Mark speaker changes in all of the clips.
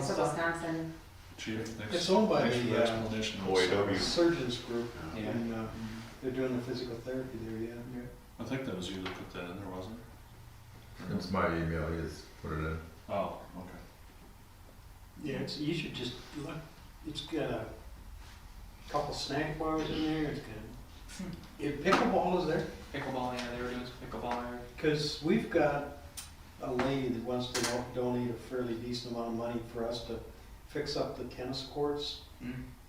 Speaker 1: So Wisconsin,
Speaker 2: Chief, next.
Speaker 3: It's owned by
Speaker 2: thanks for
Speaker 3: the, uh,
Speaker 2: explanation.
Speaker 4: OAW.
Speaker 3: Surgeons group,
Speaker 5: Yeah.
Speaker 3: and, uh, they're doing the physical therapy there, yeah.
Speaker 2: I think that was you that put that in there, wasn't it?
Speaker 4: It's my email, he just put it in.
Speaker 2: Oh, okay.
Speaker 3: Yeah, it's, you should just look, it's got a couple snack bars in there, it's got, if pickleball is there,
Speaker 5: Pickleball, yeah, they were doing some pickleball there.
Speaker 3: cause we've got a lady that wants to do- donate a fairly decent amount of money for us to fix up the tennis courts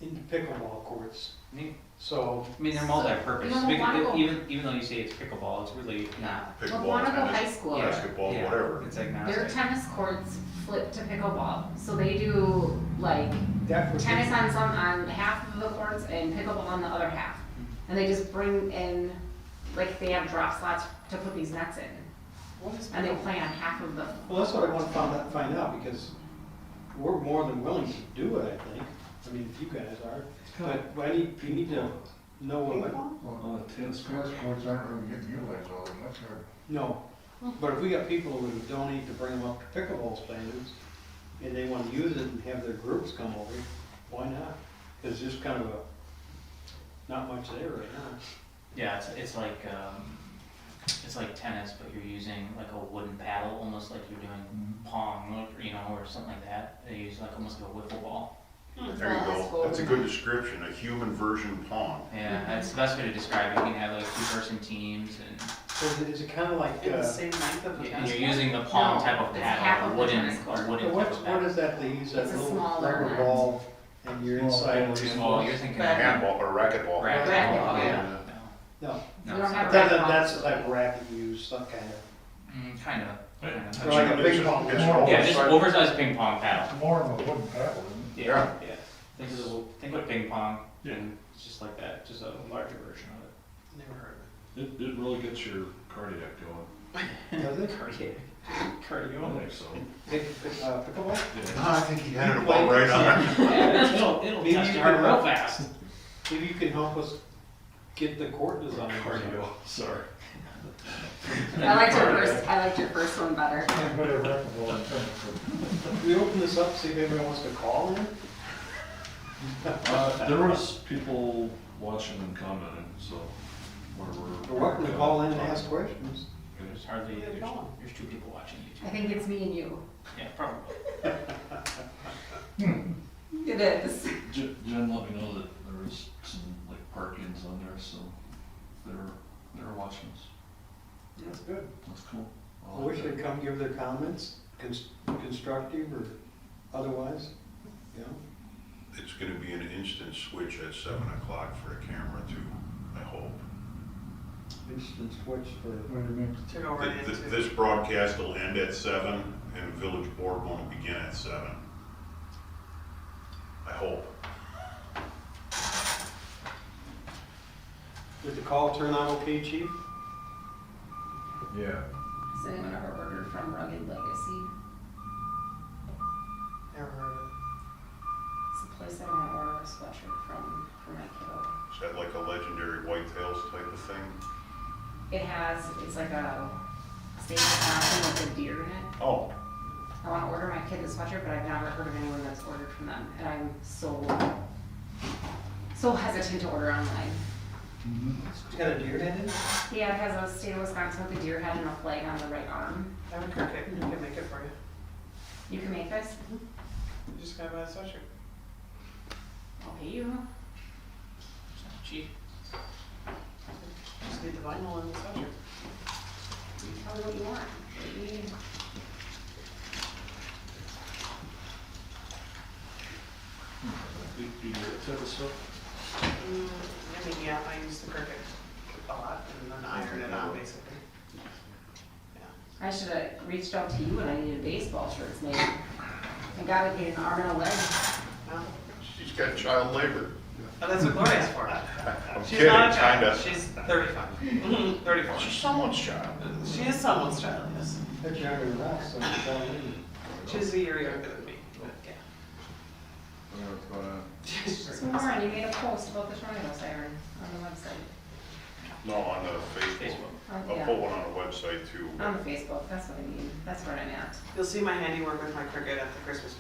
Speaker 3: into pickleball courts,
Speaker 5: Hmm. Neat.
Speaker 3: so,
Speaker 5: I mean, they're
Speaker 1: You
Speaker 5: multi-purpose.
Speaker 1: know,
Speaker 5: Because
Speaker 1: why
Speaker 6: e-,
Speaker 1: go-
Speaker 5: even even though you say it's pickleball, it's really not.
Speaker 1: well, Quantico High School,
Speaker 5: Yeah,
Speaker 4: basketball,
Speaker 5: yeah,
Speaker 4: whatever.
Speaker 5: It's like
Speaker 1: their tennis courts flip to pickleball. So they do like
Speaker 3: that would be.
Speaker 1: tennis on some, on half of the courts and pickleball on the other half. And they just bring in, like they have drop slots to put these nets in. And they play on half of them.
Speaker 3: Well, that's what I want to find out, find out, because we're more than willing to do it, I think. I mean, if you guys are, but I need, we need to know what,
Speaker 7: Well, the tennis courts aren't really getting utilized all that much, or
Speaker 3: no. But if we got people who would donate to bring them up to pickleball standards, and they want to use it and have their groups come over, why not? Because there's kind of a, not much there right now.
Speaker 6: Yeah, it's, it's like, um, it's like tennis, but you're using like a wooden paddle, almost like you're doing
Speaker 4: Mm-hmm.
Speaker 6: pong, or, you know, or something like that. They use like almost like a wiffle ball.
Speaker 5: Hmm.
Speaker 4: There you go, that's a good description, a human version pong.
Speaker 6: Yeah,
Speaker 1: Mm-hmm.
Speaker 6: that's the best way to describe it. You can have like two-person teams, and,
Speaker 3: So is it kind of like,
Speaker 5: In the
Speaker 3: uh,
Speaker 5: same length of the
Speaker 6: and
Speaker 5: tennis.
Speaker 6: you're using the pong
Speaker 1: No,
Speaker 6: type of
Speaker 1: it's half
Speaker 6: paddle,
Speaker 1: of
Speaker 6: a
Speaker 1: the
Speaker 6: wooden,
Speaker 1: tennis court.
Speaker 6: a wooden
Speaker 3: uh, what,
Speaker 6: type of
Speaker 3: what
Speaker 6: paddle.
Speaker 3: is that they use, that
Speaker 1: It's a
Speaker 3: little
Speaker 1: smaller
Speaker 3: rubber
Speaker 1: net.
Speaker 3: ball, and you're
Speaker 7: Small
Speaker 3: inside.
Speaker 7: net.
Speaker 3: with-
Speaker 6: Small, you're thinking.
Speaker 4: Handball or racquetball.
Speaker 6: Racket.
Speaker 1: Racquetball,
Speaker 6: Oh,
Speaker 2: yeah.
Speaker 3: No,
Speaker 6: No,
Speaker 1: We don't
Speaker 6: it's
Speaker 1: have
Speaker 6: not.
Speaker 3: that, that- that's the type of racket you use, some kind of.
Speaker 6: Mm, kind of.
Speaker 2: Right.
Speaker 6: kind of.
Speaker 3: They're like a big
Speaker 4: It's-
Speaker 3: ball.
Speaker 4: it's more
Speaker 6: Yeah, just
Speaker 4: oversized.
Speaker 6: oversized ping pong paddle.
Speaker 7: it's more of a wooden paddle, isn't it?
Speaker 4: Yeah.
Speaker 6: Yeah. Think of, the- think of ping pong. It's just like that, just a larger version of it.
Speaker 3: Never heard
Speaker 2: It, it really gets your cardiac going.
Speaker 3: Does it?
Speaker 6: Cardiac.
Speaker 2: I
Speaker 6: Cardio.
Speaker 2: think so.
Speaker 3: Pick, uh, pickleball?
Speaker 2: Yeah.
Speaker 4: I think he had it about right on.
Speaker 6: Yeah, it'll, it'll
Speaker 3: Maybe
Speaker 6: test
Speaker 3: you
Speaker 6: your heart
Speaker 3: could-
Speaker 6: real fast.
Speaker 3: Maybe you can help us get the court design.
Speaker 2: Cardio, sorry.
Speaker 1: I liked your first, I liked your first one better.
Speaker 7: Can't put a racquetball in tennis court.
Speaker 3: We open this up, see if anybody wants to call in?
Speaker 2: Uh, there was people watching and commenting, so. we're-
Speaker 3: They're welcome to call in and ask questions.
Speaker 6: There's hardly,
Speaker 3: Yeah,
Speaker 6: there's,
Speaker 3: go on.
Speaker 6: there's two people watching
Speaker 1: I
Speaker 6: YouTube.
Speaker 1: think it's me and you.
Speaker 6: Yeah, probably.
Speaker 1: It is.
Speaker 2: Jen, Jen let me know that there was some like parkings on there, so they're, they're watching us.
Speaker 3: That's good.
Speaker 2: That's cool. I
Speaker 3: I
Speaker 2: like
Speaker 3: wish
Speaker 2: that.
Speaker 3: they'd come give their comments, cons- constructive or otherwise, you know?
Speaker 4: It's gonna be an instant switch at seven o'clock for a camera too, I hope.
Speaker 3: Instant switch for,
Speaker 7: Wait a minute.
Speaker 5: To go right
Speaker 4: Th- th-
Speaker 5: into.
Speaker 4: This broadcast will end at seven and village board won't begin at seven. I hope.
Speaker 3: did the call turn out okay, chief?
Speaker 4: Yeah.
Speaker 1: Has anyone ever ordered from Rugged Legacy?
Speaker 5: Never heard of
Speaker 1: It's the place I want to order a sweatshirt from for my kiddo.
Speaker 4: Is that like a legendary whitetails type of thing?
Speaker 1: It has, it's like a stainless fabric with a deer in it.
Speaker 4: Oh,
Speaker 1: I want to order my kid a sweatshirt, but I've never heard of anyone that's ordered from them, and I'm so so hesitant to order online.
Speaker 3: It's got a deer head in it?
Speaker 1: Yeah, it has a state of Wisconsin with a deer head and a flag on the right arm.
Speaker 5: it. I would cook it, you can make it for you.
Speaker 1: You can make this.
Speaker 5: You just gotta buy a sweatshirt.
Speaker 1: I'll pay you.
Speaker 6: It's not cheap.
Speaker 5: Just need the vinyl and the sweatshirt.
Speaker 1: You tell me what you want. What you need.
Speaker 2: Do do you get that type of stuff?
Speaker 5: Mm, I mean, yeah, I used to cook it a lot and then iron it out basically.
Speaker 1: I should have reached out to you when I needed baseball shirts made. I got to get an arm and a leg.
Speaker 5: No?
Speaker 4: she's got child labor.
Speaker 5: Oh, that's what Gloria's for.
Speaker 4: I'm
Speaker 5: She's
Speaker 4: kidding,
Speaker 5: not a child.
Speaker 4: kinda.
Speaker 5: She's 35. Mhm, 34.
Speaker 4: She's someone's child.
Speaker 5: She is someone's child, yes.
Speaker 3: That's younger than us, so it's all in.
Speaker 5: She's a year younger than me. but yeah. She's
Speaker 1: So Lauren, you made a post about the tornado siren on the website.
Speaker 4: No, on the Facebook.
Speaker 6: Facebook.
Speaker 1: Oh,
Speaker 4: I'll
Speaker 1: yeah.
Speaker 4: put one on the website too.
Speaker 5: Oh,
Speaker 1: On the Facebook, that's what I mean. That's where I'm at.
Speaker 5: You'll see my handiwork with my cricket at the Christmas